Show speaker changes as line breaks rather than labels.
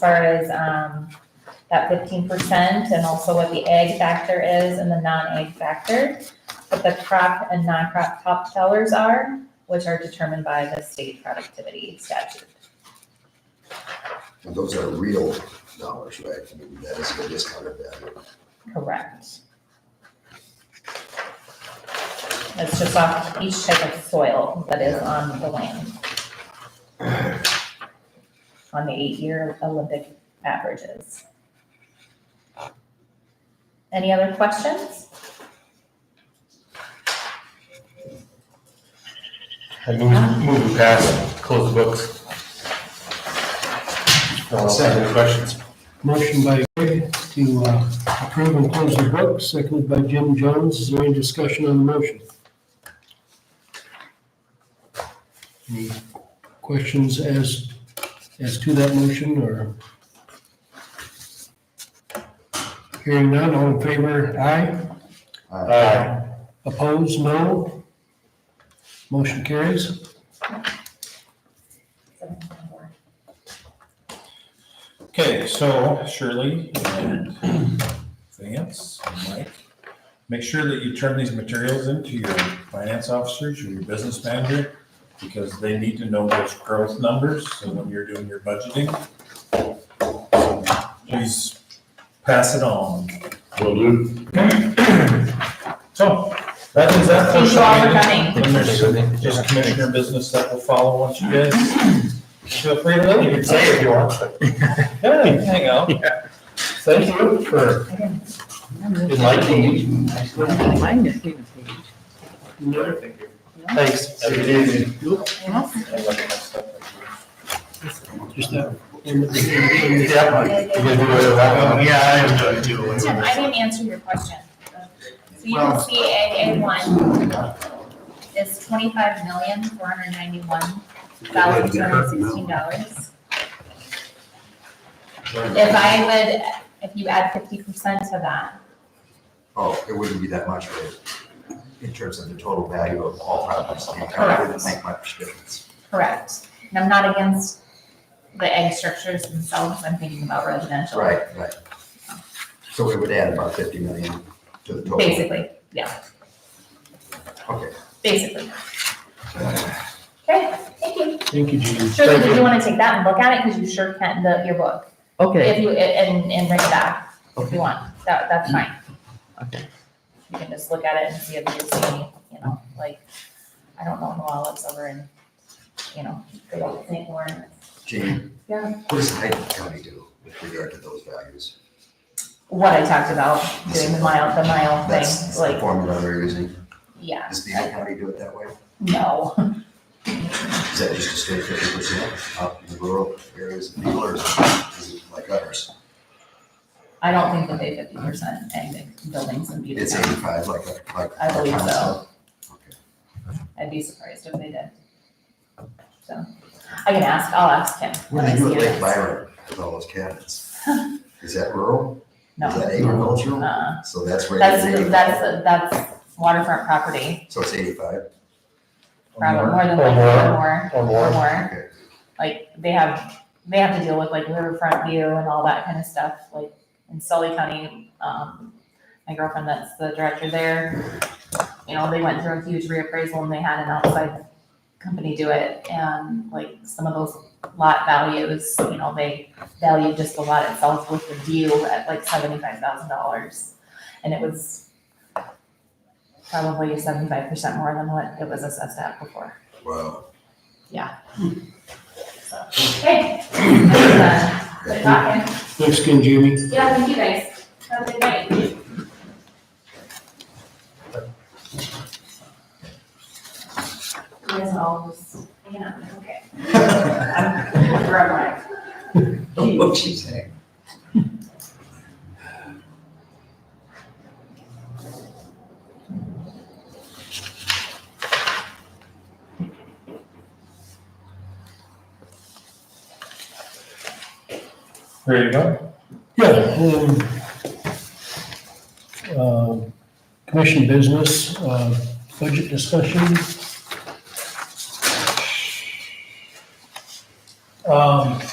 far as, um, that fifteen percent and also what the egg factor is and the non-egg factor. What the crop and non-crop top sellers are, which are determined by the state productivity statute.
And those are real dollars, right? I mean, that is the discounted value.
Correct. It's just off each type of soil that is on the land. On the eight-year Olympic averages. Any other questions?
I move, move we pass, close the books. No, I'll second the questions.
Motion by Greg to uh, approve and close the book, seconded by Jim Jones. Is there any discussion on the motion? Any questions as, as to that motion or? Hearing none, all in favor, aye. Uh,
Aye.
Opposed, no. Motion carries.
Okay, so Shirley and Vance and Mike, make sure that you turn these materials into your finance officers or your business manager because they need to know those growth numbers so when you're doing your budgeting. Please pass it on.
Will do.
So that is that.
Thank you all for coming.
Then there's just commissioner business that will follow once you guys feel free to leave.
You can say if you want.
Yeah, hang out.
Thank you for enlightening me.
Mine just need a page.
Thanks. Have a good evening.
Just that.
Yeah, you can do whatever happened. Yeah, I am going to do
Tim, I didn't answer your question. So you can see A, A one is twenty-five million, four hundred ninety-one thousand, two hundred sixteen dollars. If I would, if you add fifty percent to that,
Oh, it wouldn't be that much, right? In terms of the total value of all properties, the entire wouldn't make much difference.
correct? And I'm not against the egg structures themselves, I'm thinking about residential.
Right, right. So we would add about fifty million to the total.
Basically, yeah,
Okay.
basically. Okay, thank you.
Thank you, Judy.
Sure,
Thank
if
you.
you wanna take that and look at it, cause you sure can, the, your book.
Okay,
If you, and, and bring it back, if
Okay.
you want, that, that's fine.
Okay.
You can just look at it and see if you see, any, you know, like, I don't know who all lives over in, you know, St. Lawrence.
Gene?
Yeah.
What does Hyden County do with regard to those values?
What I talked about, doing the mile, the mile
That's that's
thing,
the
like,
formula they're using.
yeah,
Does Beaver County do it that way?
no.
Is that just to stay fifty percent up in the rural areas of people or is it- is it like others?
I don't think that they fifty percent and buildings and beauty.
It's eighty-five like, like. like
I believe
our
so.
Okay.
I'd be surprised if they did. So, I can ask, I'll ask him.
What do they do at
when I see
Lake
him.
Byron with all those cabins? Is that rural? Is
No,
that agricultural?
uh,
So that's where. it is
That's, that's,
85.
that's waterfront property,
So it's eighty-five?
probably more than
Or
like
more.
or more,
Or
or
more.
more.
Okay.
Like, they have, they have to deal with like riverfront view and all that kind of stuff, like in Sully County, um, my girlfriend that's the director there, you know, they went through a huge reappraisal and they had an outside company do it, and like some of those lot values, you know, they valued just the lot itself with the view at like seventy-five thousand dollars. And it was probably seventy-five percent more than what it was assessed at before.
Wow.
So, okay. Good talking.
Thanks again, Jamie.
Yeah, thank you guys. Have a good night. You guys all just, yeah, okay. I'm, I'm like,
What she's saying.
Ready to go?
Yeah. um, um, Commission business, uh, budget discussion.
Um,